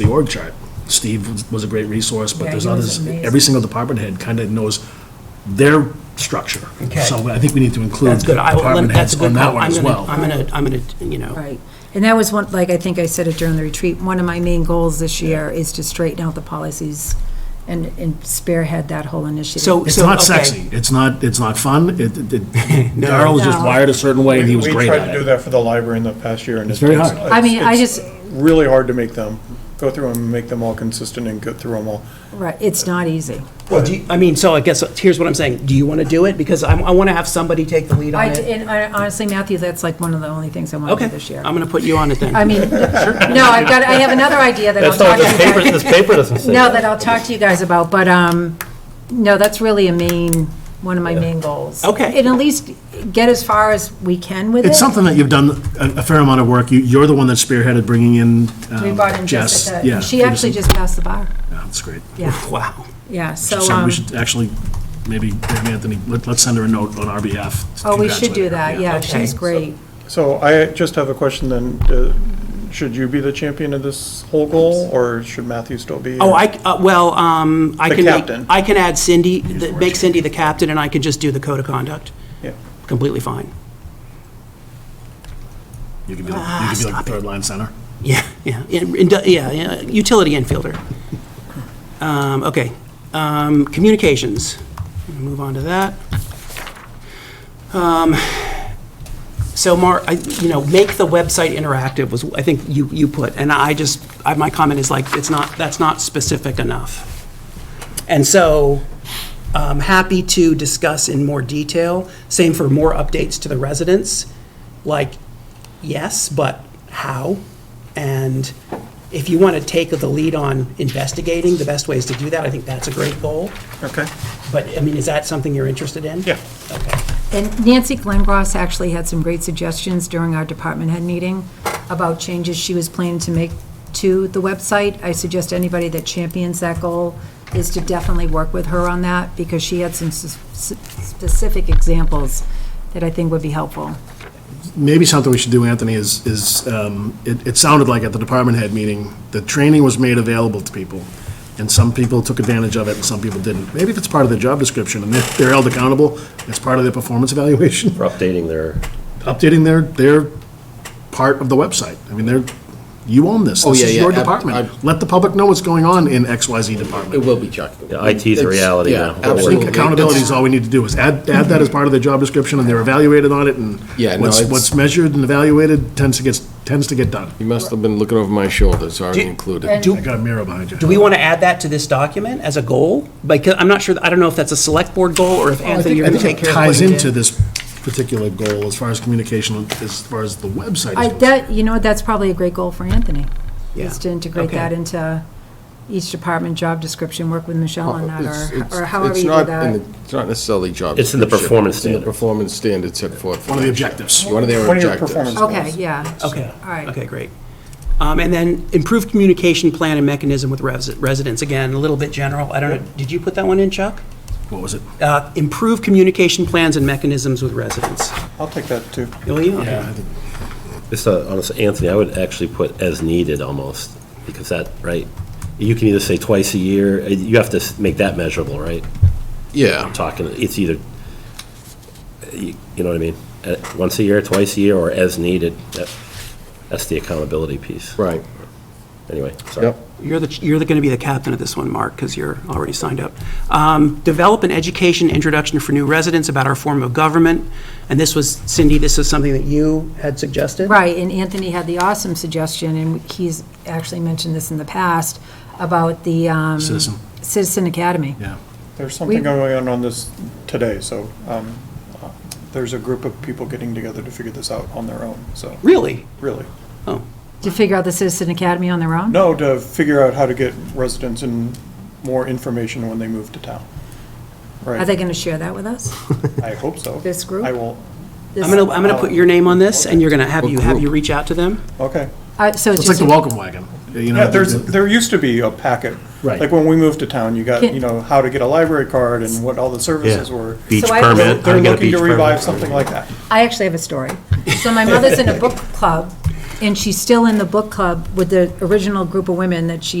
the org chart. Steve was- was a great resource, but Yeah, there's he was others, amazing. every single department head kind of knows their structure. Okay. So I think we need to include That's the good. I will- department That's a heads good on that call. one I'm as gonna- well. I'm gonna, I'm gonna, you know, Right. And that was one, like I think I said it during the retreat, one of my main goals this year is to straighten out the policies and, and spearhead that whole initiative. So- It's not okay. sexy, it's not, it's not fun, it, it- it- No. Darryl was just No. wired a certain way, and he was We- great We tried at to do it. that for the library in the past year, and It's it's... very hard. it's- I mean, I it's just- Really hard to make them, go through them, make them all consistent and go through them all. Right, it's not easy. well, do you, I mean, so I guess, here's what I'm saying. Do you want to do it? Because I'm, I want to have somebody take the lead I, on it. and I- honestly, Matthew, that's like one of the only things I want to Okay, do this year. I'm gonna put you on it then. I mean, no, I've got, I have another idea that I'll That's talk not, to this you paper, guys- this paper doesn't say No, that. that I'll talk to you guys about, but, um, no, that's really a main, one of my main goals. Okay. And at least get as far as we can with it. It's something that you've done a a fair amount of work, you, you're the one that spearheaded bringing in um, We brought in Jess. Jessica. Yeah, She actually Peterson. just passed the bar. Yeah, That's great. Yeah, Wow. yeah, so, So um, we should actually, maybe, maybe Anthony, let- let's send her a note on our behalf. to oh, we should congratulate do her. that, yeah, she's Okay. great. So I just have a question then, uh, should you be the champion of this whole goal, or should Matthew still be? Oh, I, uh, well, um, I The can make, captain. I can add Cindy, the- make Cindy the captain, and I can just do the code of conduct. Yeah. Completely fine. You could be like, you could be like the third line center. Yeah, yeah, in- in- yeah, yeah, utility infielder. Um, Okay, Um, communications, We'll move on to that. Um, So, Mark, I- you know, make the website interactive was, I think you, you put, and I just, I- my comment is like, it's not, that's not specific enough. And so, I'm happy to discuss in more detail, same for more updates to the residents, like, yes, but how? And if you want to take the lead on investigating the best ways to do that, I think that's a great goal. Okay, But, I mean, is that something you're interested in? yeah. Okay. And Nancy Glengross actually had some great suggestions during our department head meeting about changes she was planning to make to the website. I suggest anybody that champions that goal is to definitely work with her on that, because she had some s- s- specific examples that I think would be helpful. Maybe something we should do, Anthony, is, is, um, it, it sounded like at the department head meeting, the training was made available to people, and some people took advantage of it and some people didn't. Maybe if it's part of their job description and they're they're held accountable, it's part of their performance evaluation, For updating their, updating their, their part of the website. I mean, they're, you own this. Oh, This yeah, is yeah, your ab- department. ab- Let the public know what's going on in XYZ department. It will be, Chuck. Yeah, IT is a reality Yeah, now. I think absolutely. accountability is all we need to do, is add, add that as part of their job description, and they're evaluated on it, and Yeah, no, what's, it's- what's measured and evaluated tends to get, tends to get done. You must have been looking over my shoulder, it's already included. I got a mirror behind you. Do we want to add that to this document as a goal? Because, I'm not sure, I don't know if that's a select board goal, or if Anthony, you're Oh, I going to think take it care of what ties you did. into this particular goal, as far as communication, as far as the website I, is concerned. that, you know, what, that's probably a great goal for Anthony, is Yeah. to integrate Okay. that into each department job description, work with Michelle on that, It's- it's- or, or however it's you do not in that. the- It's not necessarily job. It's in the description. performance It's in the standard. performance standard set forth. for One of the that. objectives. One of their One of your objectives. performance- Okay, yeah. Okay. All right. Okay, great. Um, And then improved communication plan and mechanism with resi- residents, again, a little bit general, I don't know, did you put that one in, Chuck? What was it? Uh, Improve communication plans and mechanisms with residents. I'll take that, too. Bill, you? this, uh, honestly, Anthony, I would actually put as needed almost, because that, right? You can either say twice a year, uh, you have to s- make that measurable, right? Yeah, I'm talking, it's either, you you know what I mean? Uh, Once a year, twice a year, or as needed. That- That's the accountability piece. right. Anyway, sorry. Yep. You're the, you're going to be the captain of this one, Mark, because you're already signed up. Um, Develop an education introduction for new residents about our form of government. And this was, Cindy, this is something that you had suggested? Right, and Anthony had the awesome suggestion, and he's actually mentioned this in the past, about the um, Citizen. Citizen Academy. Yeah. There's something going on on this today, so um, uh, there's a group of people getting together to figure this out on their own, so, Really? really. Oh, To figure out the Citizen Academy on their own? No, to figure out how to get residents and more information when they move to town. Are Right, they going to share that with us? I hope so. This group? I will, This- I'm going to, I'm going to put your name on this, and you're going to have What you, have group? you reach out to them? okay. I- So it's It's like just, the welcome wagon, you know? Yeah, there's, the- there used to be a packet. Right. Like when we moved to town, you got, Can- you know, how to get a library card and what all the services were. Beach So I- permit. They're how they're to get a looking beach to permit. revive something like that. I actually have a story. So my mother's in a book club, And she's still in the book club with the original group of women that she